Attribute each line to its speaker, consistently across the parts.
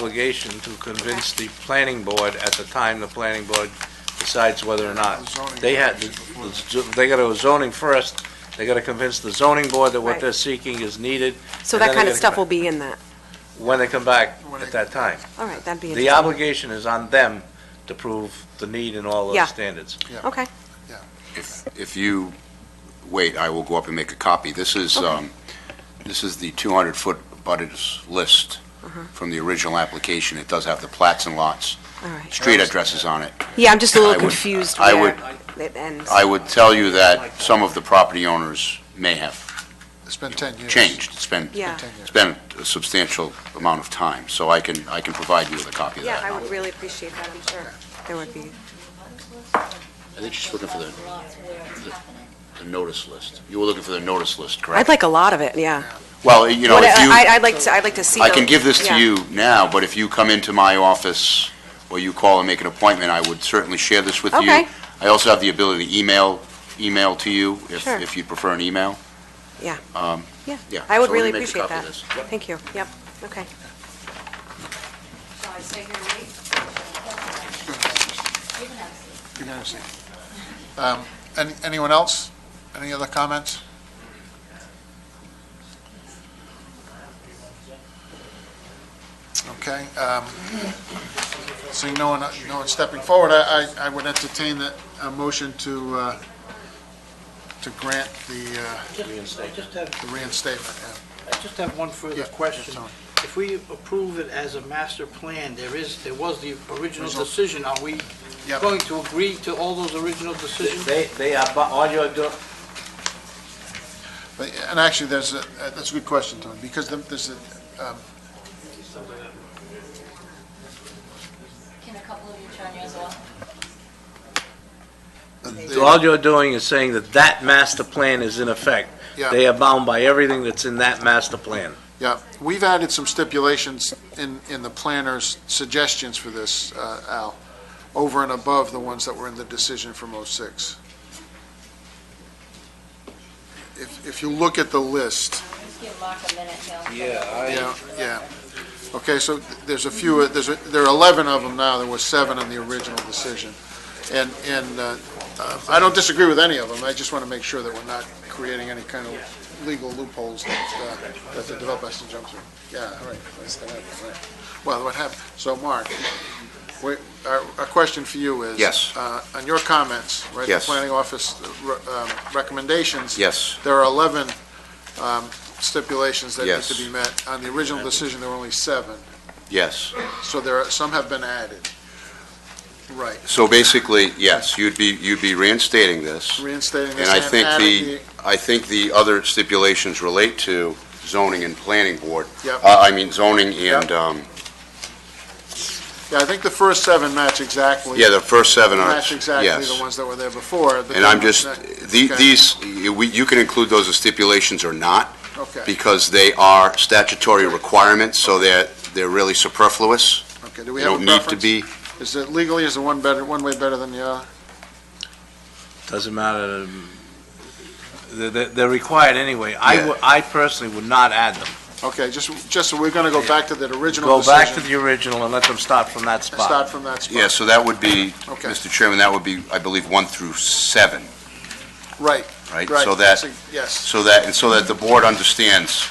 Speaker 1: obligation to convince the planning board at the time the planning board decides whether or not.
Speaker 2: Zoning
Speaker 1: They had,
Speaker 2: regulations before that.
Speaker 1: they gotta go zoning first, they gotta convince the zoning board that what
Speaker 3: Right.
Speaker 1: they're seeking is needed
Speaker 3: So
Speaker 1: And then
Speaker 3: that kind
Speaker 1: they
Speaker 3: of
Speaker 1: gotta
Speaker 3: stuff
Speaker 1: come
Speaker 3: will be in that.
Speaker 1: when they come back
Speaker 2: When
Speaker 1: at
Speaker 2: they-
Speaker 1: that time.
Speaker 3: All right, that'd be
Speaker 1: The
Speaker 3: interesting.
Speaker 1: obligation is on them to prove the need and all
Speaker 3: Yeah.
Speaker 1: those standards.
Speaker 3: Okay,
Speaker 4: If if you, wait, I will go up and make a copy. This is, um, this is the 200-foot butters list
Speaker 3: Uh-huh.
Speaker 4: from the original application. It does have the plats and lots,
Speaker 3: all right.
Speaker 4: street addresses on it.
Speaker 3: Yeah, I'm just a
Speaker 4: I
Speaker 3: little
Speaker 4: would-
Speaker 3: confused
Speaker 4: I
Speaker 3: where
Speaker 1: would-
Speaker 3: it ends.
Speaker 4: I would tell you that some of the property owners may have
Speaker 2: It's been 10 years.
Speaker 4: changed. It's been,
Speaker 3: Yeah.
Speaker 2: Ten years.
Speaker 4: it's been a substantial amount of time, so I can, I can provide you with a copy of
Speaker 3: Yeah,
Speaker 4: that.
Speaker 3: I would really appreciate that, I'm sure. There would be,
Speaker 4: I think she's looking for the, the notice list. You were looking for the notice list,
Speaker 3: I'd
Speaker 4: correct?
Speaker 3: like a lot of it, yeah.
Speaker 4: Well, you know,
Speaker 3: What
Speaker 4: if
Speaker 3: I-
Speaker 4: you...
Speaker 3: I- I'd like to, I'd like to see.
Speaker 4: I can
Speaker 3: those.
Speaker 4: give this to
Speaker 3: Yeah.
Speaker 4: you now, but if you come into my office or you call and make an appointment, I would certainly share this with you.
Speaker 3: Okay.
Speaker 4: I also have the ability to email, email to you if,
Speaker 3: Sure.
Speaker 4: if you'd prefer an email.
Speaker 3: Yeah.
Speaker 4: Um,
Speaker 3: Yeah,
Speaker 4: Yeah.
Speaker 3: I would
Speaker 4: so let me
Speaker 3: really
Speaker 4: make a
Speaker 3: appreciate
Speaker 4: copy
Speaker 3: that.
Speaker 4: of this.
Speaker 3: Thank you, yep, okay.
Speaker 5: Shall I stay here and wait? You can have a seat.
Speaker 2: You can see. Um, any- Anyone else? Any other comments? Okay. um, Seeing no one, no one stepping forward, I, I- I would entertain the, a motion to, uh, to grant the, uh,
Speaker 6: I just have,
Speaker 2: the reinstatement. yeah.
Speaker 6: I just have one further
Speaker 2: Yeah,
Speaker 6: question.
Speaker 2: Tony.
Speaker 6: If we approve it as a master plan, there is, there was the original
Speaker 2: Result.
Speaker 6: decision, are we
Speaker 2: Yep.
Speaker 6: going to agree to all those original decisions?
Speaker 1: They, they are, bu- all you're doing,
Speaker 2: But- And actually, there's a, uh, that's a good question, Tony, because there- there's a,
Speaker 5: Can a couple of you turn yours off?
Speaker 1: So all you're doing is saying that that master plan is in effect.
Speaker 2: Yeah.
Speaker 1: They are bound by everything that's in that master plan.
Speaker 2: Yeah, we've added some stipulations in, in the planner's suggestions for this, uh, Al, over and above the ones that were in the decision from '06. If, if you look at the list,
Speaker 5: Just give Mark a minute, he'll.
Speaker 2: yeah, yeah. Okay, so there's a few, there's, a- there are 11 of them now, there were seven in the original decision. And, and uh, uh, I don't disagree with any of them, I just want to make sure that we're not creating any kind of legal loopholes that, uh, that the developer has to jump through. Yeah, all right, that's gonna happen, right. Well, what happened, so Mark, we, our, our question for you is.
Speaker 4: Yes.
Speaker 2: uh, On your comments, right?
Speaker 4: Yes.
Speaker 2: The planning office uh, re- um, recommendations.
Speaker 4: Yes.
Speaker 2: There are 11 um, stipulations that need
Speaker 4: Yes.
Speaker 2: to be met. On the original decision, there were only seven,
Speaker 4: Yes.
Speaker 2: so there are, some have been added. Right,
Speaker 4: So basically, yes, you'd be, you'd be reinstating this.
Speaker 2: reinstating this
Speaker 4: And I
Speaker 2: and
Speaker 4: think
Speaker 2: adding
Speaker 4: the, I think the other stipulations relate to zoning and planning board.
Speaker 2: the, yep.
Speaker 4: Uh, I mean zoning
Speaker 2: Yep.
Speaker 4: and, um,
Speaker 2: Yeah, I think the first seven match exactly.
Speaker 4: yeah, the first seven are, yes.
Speaker 2: Match exactly the ones that were there before. but
Speaker 4: And I'm
Speaker 2: then-
Speaker 4: just, the-
Speaker 2: Okay,
Speaker 4: these, we- you can include those as stipulations or not,
Speaker 2: Okay,
Speaker 4: because they are statutory requirements, so they're, they're really superfluous.
Speaker 2: okay, do we
Speaker 4: They
Speaker 2: have
Speaker 4: don't
Speaker 2: a
Speaker 4: need to
Speaker 2: preference?
Speaker 4: be,
Speaker 2: Is it legally, is the one better, one way better than the other?
Speaker 1: Doesn't matter, um, they're, they're- they're required anyway. I,
Speaker 4: Yeah.
Speaker 1: would- I personally would not add them.
Speaker 2: Okay, just, just, we're gonna go back to that original
Speaker 1: Go
Speaker 2: decision.
Speaker 1: back to the original and let them start from that
Speaker 2: and Start
Speaker 1: spot.
Speaker 2: from that spot.
Speaker 4: yeah, so that would be,
Speaker 2: Okay.
Speaker 4: Mr. Chairman, that would be, I believe, one through seven,
Speaker 2: Right,
Speaker 4: right?
Speaker 2: right.
Speaker 4: So that,
Speaker 2: Yes,
Speaker 4: so that, and so that the board understands,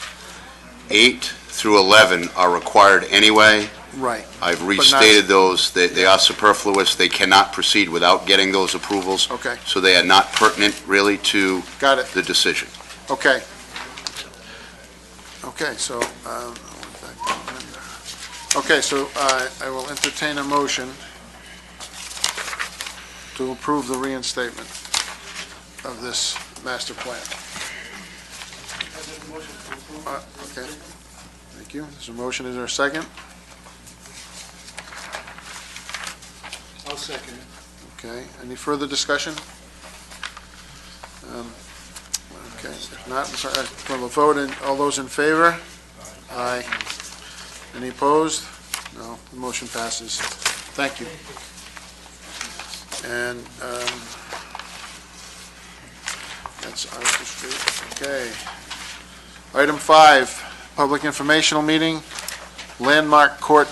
Speaker 4: eight through 11 are required anyway.
Speaker 2: right,
Speaker 4: I've restated those, they, they are superfluous, they cannot proceed without getting those approvals.
Speaker 2: Okay.
Speaker 4: So they are not pertinent really to
Speaker 2: got it.
Speaker 4: the decision.
Speaker 2: Okay. Okay, so, um, I went back to the agenda. okay, so uh, I will entertain a motion to approve the reinstatement of this master plan. Uh, Okay, thank you. There's a motion, is there a second?
Speaker 6: I'll second it.
Speaker 2: Okay, any further discussion? Um, Okay, if not, I'm sorry, we'll vote, and all those in favor? Aye. Any opposed? No, the motion passes. Thank you. And um, that's Article Street, okay. Item five, public informational meeting, Landmark Court